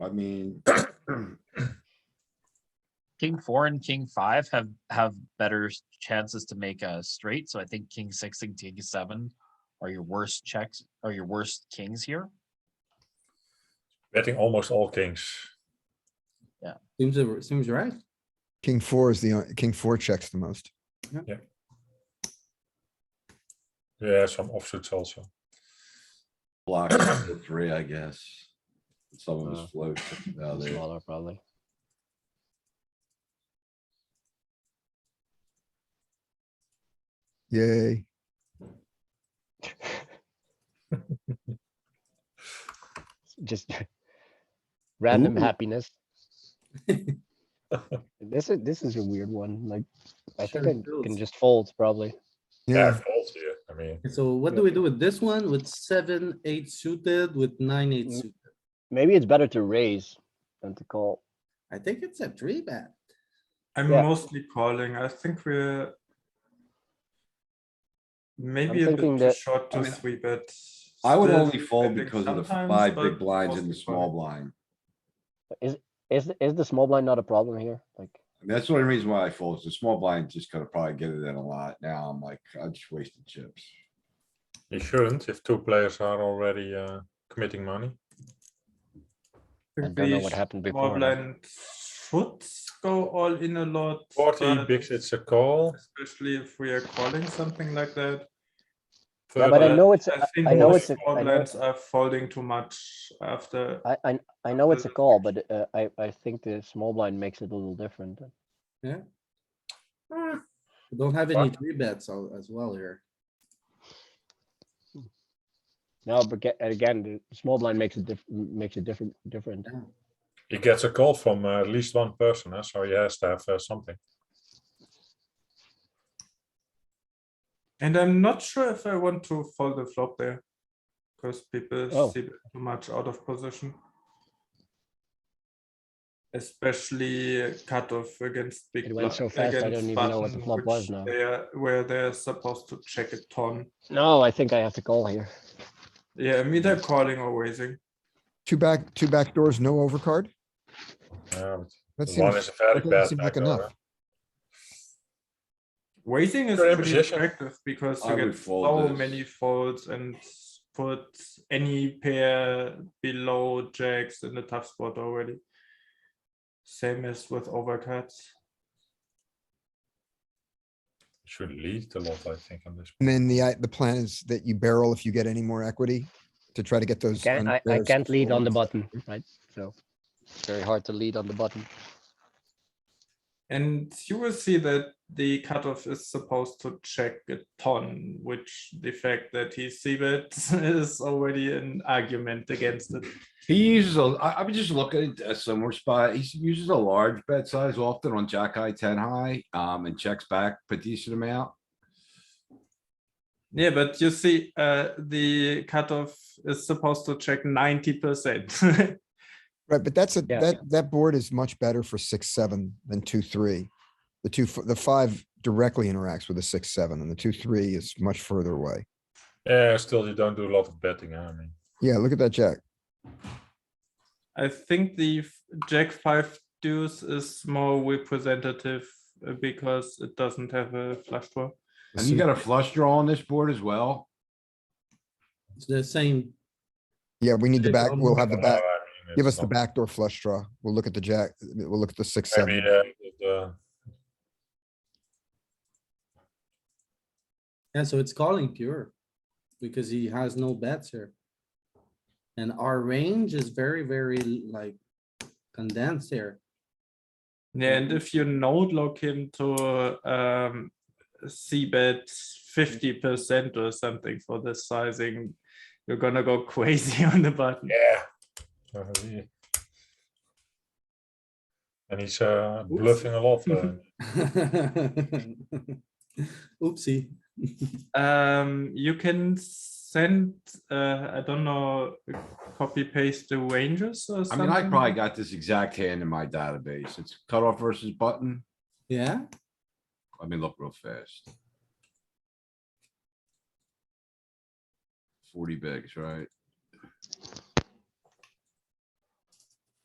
I mean, King four and king five have, have better s- chances to make a straight, so I think king six and king seven are your worst checks, are your worst kings here. Betting almost all kings. Seems, a- seems right. King four is the, on- king four checks the most. Yeah, some offsuits also. block the three, I guess. Some of Uh, us float. now It's there. smaller, probably. Yay. Just random Ooh. happiness. This is, this is a weird one, like, I think Sure, I can builds. just fold probably. Yeah, fold here. I mean, So what do we do with this one? With seven, eight suited, with nine, eight Mm. suited? Maybe it's better to raise than to call. I think it's a three bet. I'm Yeah. mostly calling. I think we're maybe I'm a thinking bit too that- short I to mean, three bet. I would still only fold big because of the sometimes, five but big blinds and the mostly small calling. blind. Is, is the small blind not a problem here? Like, And that's the only reason why I fold. is The small blind just gonna probably get it in a lot. Now I'm like, I just wasted chips. you shouldn't if two players are already uh, committing money. I think don't know we what sh- happened Small before. like, blind should go all in a lot. 40 but bigs, it's a call. Especially if we are calling something like that. Yeah, but I Further- know it's, a- I think I know most it's a- small I know blinds are folding too much after. I, I, I know it's a Uh, call, but uh, I, I think the small blind makes it a little different. We Don't have any Fuck. three bets al- as well here. No, but ge- again, the small blind makes it diff, makes it different, different. He gets a call from uh, at least one person, uh, so he has to have uh, something. And I'm not sure if I want to fold the flop there. Because people Oh. see too much out of position. Especially cutoff against big. It went bli- so fast, I against don't even know what the button, flop was which now. They are, where they're supposed to check a ton. No, I think I have to call here. Yeah, I'm either calling or raising. two back, two back doors, no overcard. Yeah, but That the one is seems, a very that doesn't bad seem like backdoor, enough. uh. Raising is You're in pretty position. attractive because I you would get fold so this. many folds and put any pair below jacks in the tough spot already. Same as with overcuts. should lead a lot, I think, on this. And then the, i- the plan is that you barrel if you get any more equity to try to get those. Can, I, I unbears can't lead on the forward. button, right? So it's very hard to lead on the button. And you will see that the cutoff is supposed to check a ton, which the fact that he see bets is already an argument against it. He uses a, I, I would just look at a similar spot. He s- uses a large bet size often on jack high, ten high, um, and checks back a decent amount. Yeah, but you see, uh, the cutoff is supposed to check ninety percent. Right, but that's a, Yeah. that, that board is much better for six, seven than two, three. The two, f- the five directly interacts with the six, seven and the two, three is much further away. Yeah, still, you don't do a lot of betting. huh, I mean, Yeah, look at that jack. I think the f- jack five deuce is more representative uh, because it doesn't have a flush draw. The And you suit- got a flush draw on this board as well. It's the same. Yeah, we need the Jack back, on we'll the have the I don't back, know, I mean, give it's us the not- backdoor flush draw. We'll look at the jack, we'll look at the six, Maybe seven. uh, the- Yeah, so it's calling pure. Because he has no bets here. And our range is very, very like condensed here. Yeah, Mm-hmm. and if you node lock him to um c bet fifty percent or something for the sizing, you're gonna go crazy on the button. Yeah. Uh, he- And he's uh, bluffing a lot. uh, Oopsie. Um, you can send uh, I don't know, copy paste the ranges or I something. mean, I probably got this exact hand in my database. It's cutoff versus button. Yeah, Let me look real fast. Forty bigs, right?